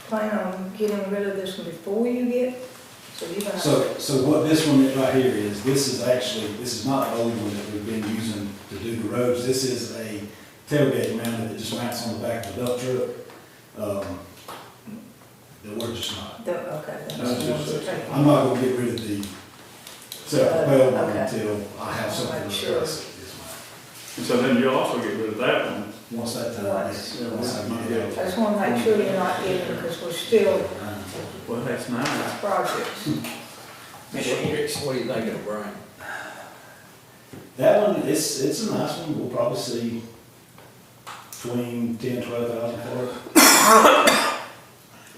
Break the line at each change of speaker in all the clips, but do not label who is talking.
plan on getting rid of this one before you get, so you're gonna.
So, so what this one right here is, this is actually, this is not the only one that we've been using to do the roads. This is a tailgate mounted that just mounts on the back of the dump truck. Um, That we're just not,
The, okay, that's
That's
the ones
just-
you're taking.
I'm not gonna get rid of the self-propelled one
Uh, Okay.
until I have something to
Sure.
replace it. is my-
And so then you'll also get rid of that one.
Once that time, is- once I get
Yeah.
it.
I just wanna make sure you're not getting, because we're still
Well, that's nice.
projects.
Mr. Hendricks, what do you think of the brain?
That one, it's, it's a nice one, we'll probably see between ten, twelve thousand for it.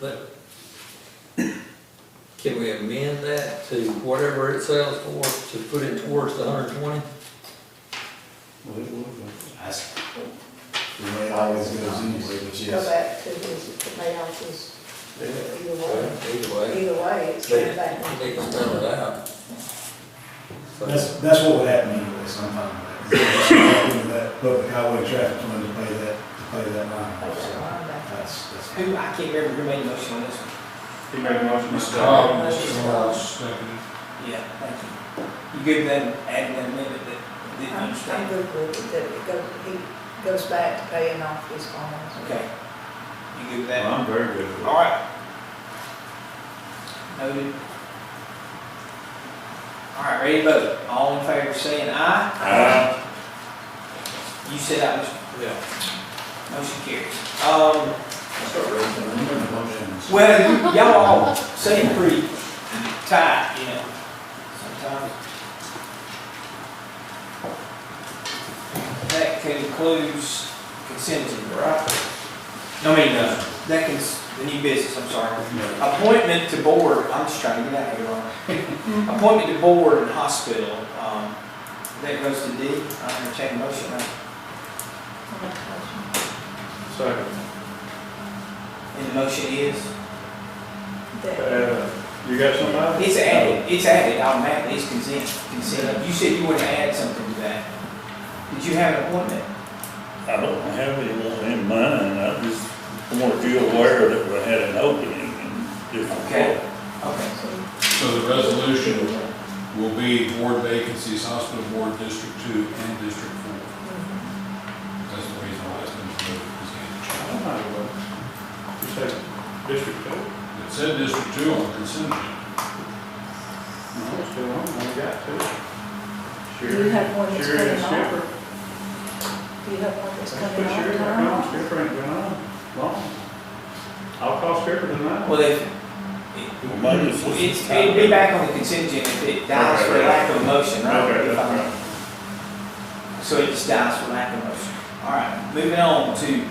But can we amend that to whatever it sells for, to put it towards the hundred and twenty?
That's the way it always goes anyway, but
Go
yes.
back to his, the payouts, either way,
Either way,
either way, it's
They-
going back.
they can spell it out. So-
That's, that's what would happen anyway sometime. That public highway traffic fund to pay that, to pay that line.
Like,
So
uh, back.
That's, that's.
Who, I can't remember who made the motion on this one.
He made a motion. Mr.
Mr. Cobb, Mr. Morris, second.
Yeah, thank you. You good then adding that amendment that didn't
I'm, I'm
understand?
good with it, that it goes, he goes back to paying off his bonds.
Okay. You good with
Well,
that?
I'm very good with
All
it.
right. Noted. All right, ready to vote. All in favor, saying aye.
Uh,
You said aye, Mr.
Yeah.
Motion carries. Um,
Start raising them.
well, y'all all seem pretty tight, you know, sometimes. That concludes consent agenda, right? I mean, uh, that can, the new business, I'm sorry. Appointment to board, I'm just trying to get out of here, Ron. Appointment to board and hospital, um, that goes to D, I'm gonna check motion, uh, right?
Second.
and the motion is?
That-
Uh, You got somebody?
It's added, it's added automatically, it's consent, consent. You said you were to add something to that. Did you have an appointment?
I don't have anyone in mind, I just want you aware that we had an opening and different.
Okay. Okay.
So the resolution will be board vacancies, hospital board, District Two and District Four. That's the reason why it's been moved, because
I might as well. You said District Two?
it said District Two on the consent agenda.
No, it's still on, we got
Do
two.
you
Sherry,
have one that's
Sherry and
coming off?
Skipper.
Do you have one that's
Let's
coming
put Sherry back
off?
on, Skipper ain't been on long. I'll call Skipper tonight.
Well, if,
Well, maybe it's just-
it's, it'd be back on the consent agenda if it dies for lack of motion, right?
Okay,
If
that's
I'm- So it just dies for lack of motion. All right, moving on to,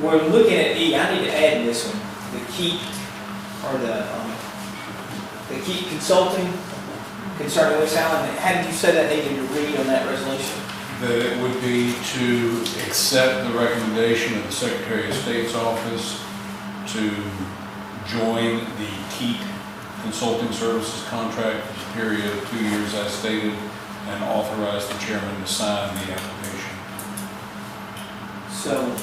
we're looking at E, I need to add this one, the keep, or the, um, the keep consulting concerning West Allen. How did you say that needed to read on that resolution?
That it would be to accept the recommendation of the Secretary of State's office to join the Keat Consulting Services contract for the period of two years as stated and authorize the chairman to sign the application.
So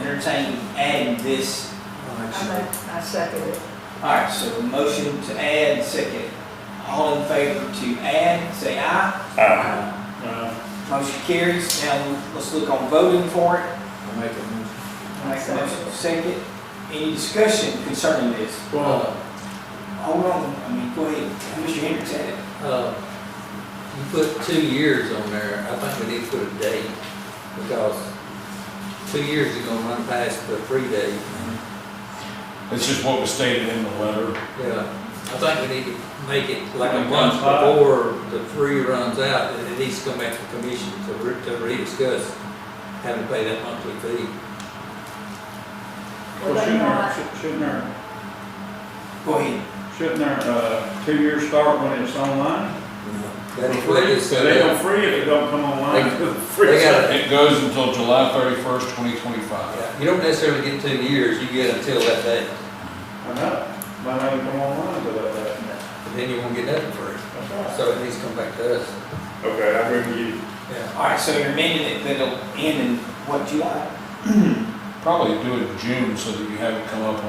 entertain adding this.
I make- I second it.
All right, so a motion to add, second. All in favor to add, say aye.
Aye.
Uh,
Motion carries. Now, let's look on voting for it.
I'll make a motion.
Make a motion, second. Any discussion concerning this?
Well,
Hold on, I mean, go ahead. Mr. Hendricks had it.
Uh, You put two years on there, I think we need to put a date, because two years is gonna run past the free date.
It's just what was stated in the letter.
Yeah, I think we need to make it like a
Like one
month
five.
before the free runs out, and it needs to come back to the commission to re- to rediscuss having to pay that monthly fee.
Well,
well,
they
shouldn't
not-
our, shou- shouldn't our,
Go ahead.
shouldn't our, uh, two years start when it's online?
That's what it is.
They don't free if it don't come online.
They gotta-
It goes until July thirty-first, twenty twenty-five.
You don't necessarily get two years, you get until that day,
I know, might not even come online till that day.
and then you won't get nothing free.
That's right.
So it needs to come back to us.
Okay, I agree with you.
Yeah.
All right, so you're amending it, that it'll end in what, July?
probably do it in June so that you have it come up